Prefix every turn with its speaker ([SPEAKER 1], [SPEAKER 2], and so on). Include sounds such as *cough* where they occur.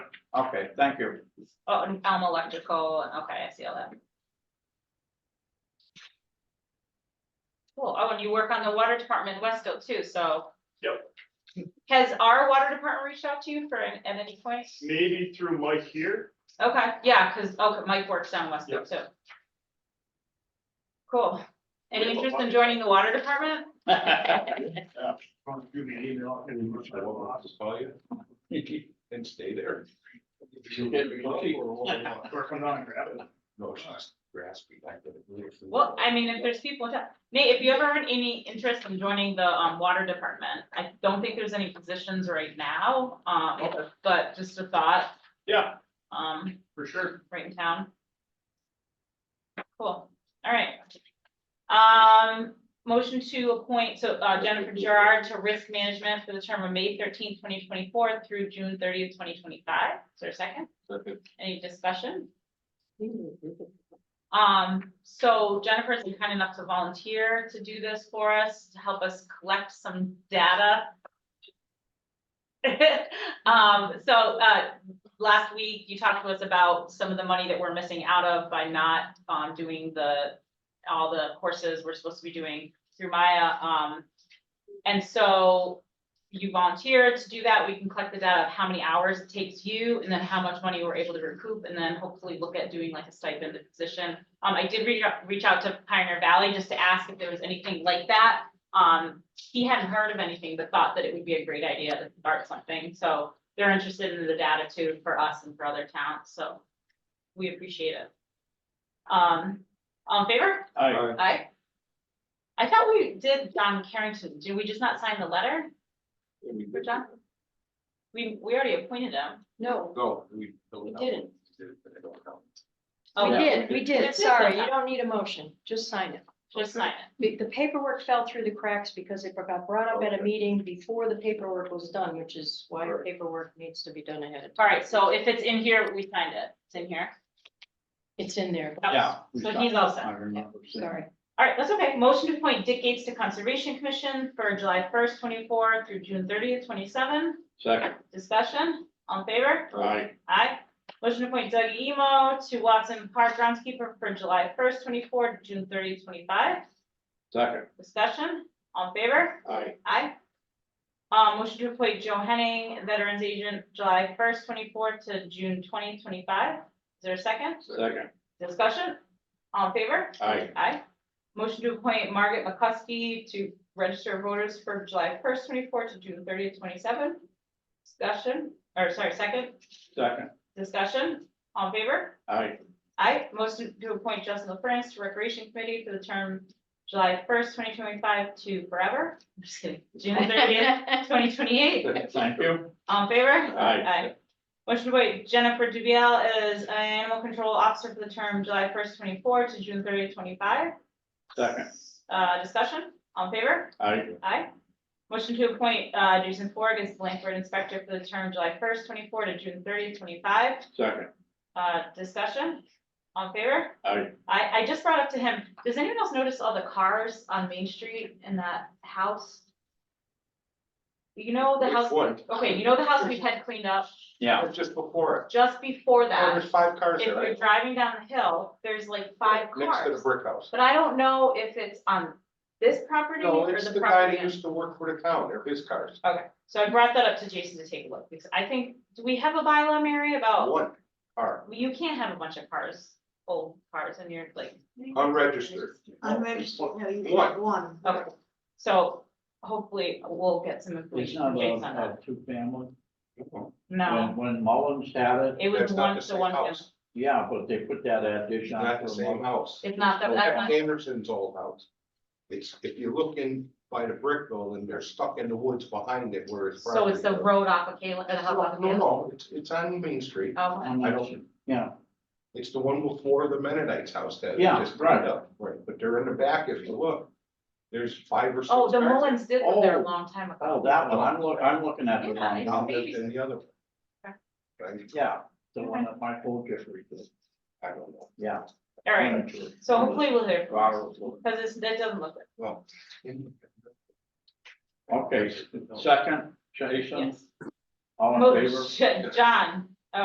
[SPEAKER 1] Okay, thank you.
[SPEAKER 2] Oh, and Elm Electrical, and- okay, I see all that. Cool, oh, and you work on the water department in Wesco too, so.
[SPEAKER 3] Yep.
[SPEAKER 2] Has our water department reached out to you for, an- at any point?
[SPEAKER 3] Maybe through Mike *laughs* here,
[SPEAKER 2] Okay, yeah, cause, okay, Mike works down Wesco
[SPEAKER 3] Yep.
[SPEAKER 2] too. Cool,
[SPEAKER 3] We
[SPEAKER 2] any
[SPEAKER 3] have a
[SPEAKER 2] interest in
[SPEAKER 3] lot.
[SPEAKER 2] joining the water department?
[SPEAKER 3] from give me an email. and we'll try to walk this
[SPEAKER 1] call you. And stay there.
[SPEAKER 3] Or come down and grab it.
[SPEAKER 1] No, she's grasping. I couldn't believe it.
[SPEAKER 2] Well, I mean, if there's people, that- Nate, if you ever had any interest in joining the, um, water department, I don't think there's any positions right now, um,
[SPEAKER 3] Okay,
[SPEAKER 2] but just a thought,
[SPEAKER 3] Yeah,
[SPEAKER 2] um,
[SPEAKER 3] for sure.
[SPEAKER 2] right in town. Cool, all right. Um, motion to appoint, so uh, Jennifer Gerard to risk management for the term of May thirteenth, twenty twenty-four through June thirtieth, twenty twenty-five. Is there a second? Any discussion? Um, so Jennifer's been kind enough to volunteer to do this for us, to help us collect some data. *laughs* Um, so, uh, last week you talked to us about some of the money that we're missing out of by not, um, doing the, all the courses we're supposed to be doing through Maya, um. And so you volunteered to do that. We can collect the data of how many hours it takes you and then how much money we're able to recoup and then hopefully look at doing like a stipend position. Um, I did reach out, reach out to Pioneer Valley just to ask if there was anything like that. Um, he hadn't heard of anything, but thought that it would be a great idea to start something. So they're interested in the data too for us and for other towns, so we appreciate it. Um, all in favor?
[SPEAKER 3] I,
[SPEAKER 2] Aye. I thought we did John Carrington. Did we just not sign the letter for John? We, we already appointed him.
[SPEAKER 4] No,
[SPEAKER 1] Go. We don't know.
[SPEAKER 4] We didn't.
[SPEAKER 1] We did, but I don't know.
[SPEAKER 2] Oh,
[SPEAKER 4] we
[SPEAKER 1] yeah.
[SPEAKER 4] did, we did,
[SPEAKER 2] That's it,
[SPEAKER 4] sorry,
[SPEAKER 2] that's
[SPEAKER 4] you don't need a motion, just sign it.
[SPEAKER 2] Just sign it.
[SPEAKER 4] The the paperwork fell through the cracks because it got brought up at a meeting before the paperwork was done, which is why
[SPEAKER 1] Right.
[SPEAKER 4] paperwork needs to be done ahead of time.
[SPEAKER 2] All right, so if it's in here, we signed it. It's in here.
[SPEAKER 4] It's in there,
[SPEAKER 2] That was-
[SPEAKER 3] Yeah, we
[SPEAKER 2] So he's all set.
[SPEAKER 3] I remember. seeing- *laughs*
[SPEAKER 4] sorry.
[SPEAKER 2] All right, that's okay. Motion to appoint Dick Gates to Conservation Commission for July first, twenty-four through June thirtieth, twenty-seven.
[SPEAKER 3] Second.
[SPEAKER 2] Discussion, all in favor?
[SPEAKER 3] Aye.
[SPEAKER 2] Aye. Motion to appoint Doug Emo to Watson Park groundskeeper for July first, twenty-four, to June 30, 25.
[SPEAKER 3] Second.
[SPEAKER 2] Discussion, all in favor?
[SPEAKER 3] Aye.
[SPEAKER 2] Aye. Uh, motion to appoint Joe Henning, Veterans Agent, July first, twenty-four to June 20, 25. Is there a second?
[SPEAKER 3] Second.
[SPEAKER 2] Discussion, all in favor?
[SPEAKER 3] Aye.
[SPEAKER 2] Aye. Motion to appoint Margaret McCusky to register of voters for July first, twenty-four to June 30, 27. Discussion, or sorry, second,
[SPEAKER 3] Second.
[SPEAKER 2] discussion, all in favor?
[SPEAKER 3] Aye.
[SPEAKER 2] I motion to appoint Justin LaFrance to Recreation Committee for the term July first, twenty twenty-five to forever. I'm just kidding. June thirtieth, twenty twenty-eight.
[SPEAKER 3] Thank you.
[SPEAKER 2] All in favor?
[SPEAKER 3] Aye.
[SPEAKER 2] Motion to appoint Jennifer Dubiel as Animal Control Officer for the term July first, twenty-four to June thirtieth, twenty-five.
[SPEAKER 3] Second.
[SPEAKER 2] Uh, discussion, all in favor?
[SPEAKER 3] Aye.
[SPEAKER 2] Aye. Motion to appoint, uh, Jason Ford as Blanford Inspector for the term July first, twenty-four to June thirtieth, twenty-five.
[SPEAKER 3] Second.
[SPEAKER 2] Uh, discussion, all in favor?
[SPEAKER 3] Aye.
[SPEAKER 2] I, I just brought up to him, does anyone else notice all the cars on Main Street in that house? You know the
[SPEAKER 1] Which
[SPEAKER 2] house,
[SPEAKER 1] one?
[SPEAKER 2] okay, you know the house we had cleaned up
[SPEAKER 3] Yeah.
[SPEAKER 1] It was Just before
[SPEAKER 2] just before
[SPEAKER 1] it. Oh,
[SPEAKER 2] that?
[SPEAKER 1] There's five cars
[SPEAKER 2] If
[SPEAKER 1] there.
[SPEAKER 2] you're
[SPEAKER 1] right?
[SPEAKER 2] driving down the hill, there's like five
[SPEAKER 1] Next to the
[SPEAKER 2] cars.
[SPEAKER 1] brick house.
[SPEAKER 2] But I don't know if it's on this property
[SPEAKER 1] No,
[SPEAKER 2] or
[SPEAKER 1] it's
[SPEAKER 2] the
[SPEAKER 1] the guy
[SPEAKER 2] property.
[SPEAKER 1] that used to work for the town. They're his cars.
[SPEAKER 2] Okay, so I brought that up to Jason to take a look, because I think, do we have a bylaw, Mary, about,
[SPEAKER 1] One car,
[SPEAKER 2] you can't have a bunch of cars, old cars in your, like,
[SPEAKER 1] unregistered.
[SPEAKER 4] *laughs*
[SPEAKER 5] Unregistered, no, you
[SPEAKER 1] One.
[SPEAKER 5] have one.
[SPEAKER 2] Okay, so hopefully we'll get some
[SPEAKER 6] It's
[SPEAKER 2] information
[SPEAKER 6] not
[SPEAKER 2] from
[SPEAKER 6] a,
[SPEAKER 2] Jason on
[SPEAKER 6] a
[SPEAKER 2] that.
[SPEAKER 6] two family.
[SPEAKER 2] No,
[SPEAKER 6] When- When Mullins had it,
[SPEAKER 2] it was
[SPEAKER 1] That's not
[SPEAKER 2] one,
[SPEAKER 1] the
[SPEAKER 2] to
[SPEAKER 1] same
[SPEAKER 2] one, family.
[SPEAKER 1] house.
[SPEAKER 6] yeah, but they put that addition on.
[SPEAKER 1] Not
[SPEAKER 6] for
[SPEAKER 1] the same
[SPEAKER 6] Mullins.
[SPEAKER 1] house.
[SPEAKER 2] it's not that,
[SPEAKER 1] Jack
[SPEAKER 2] that's
[SPEAKER 1] Anderson's old house. It's, if you look in by the brick building, they're stuck in the woods behind it where it's.
[SPEAKER 2] not, so it's the
[SPEAKER 1] property.
[SPEAKER 2] road off of Kalen, the hub off of
[SPEAKER 1] No,
[SPEAKER 2] Kalen.
[SPEAKER 1] no, it's, it's on Main Street.
[SPEAKER 2] Oh,
[SPEAKER 6] And
[SPEAKER 1] I
[SPEAKER 6] that's-
[SPEAKER 1] don't-
[SPEAKER 6] Yeah,
[SPEAKER 1] It's the one before the Mennonites house that. they
[SPEAKER 6] Yeah,
[SPEAKER 1] just burned
[SPEAKER 6] right.
[SPEAKER 1] up. Right, but they're in the back, if you look, there's five or six.
[SPEAKER 2] oh, the
[SPEAKER 1] cars.
[SPEAKER 2] Mullins did live there a
[SPEAKER 6] Oh.
[SPEAKER 2] long time ago.
[SPEAKER 6] oh, that one, I'm look, I'm looking at the
[SPEAKER 2] Yeah,
[SPEAKER 6] one,
[SPEAKER 2] it's-
[SPEAKER 1] Now, there's the other. one.
[SPEAKER 2] Okay.
[SPEAKER 1] Right,
[SPEAKER 6] yeah, the one that Michael Jeffrey did,
[SPEAKER 1] I don't know.
[SPEAKER 6] yeah.
[SPEAKER 2] All right, so hopefully we'll hear,
[SPEAKER 6] Robert Wood.
[SPEAKER 2] because it's, that doesn't look good,
[SPEAKER 1] Well.
[SPEAKER 6] Okay, second, Jason,
[SPEAKER 2] yes.
[SPEAKER 6] all in favor?
[SPEAKER 2] Motion, Oh, John,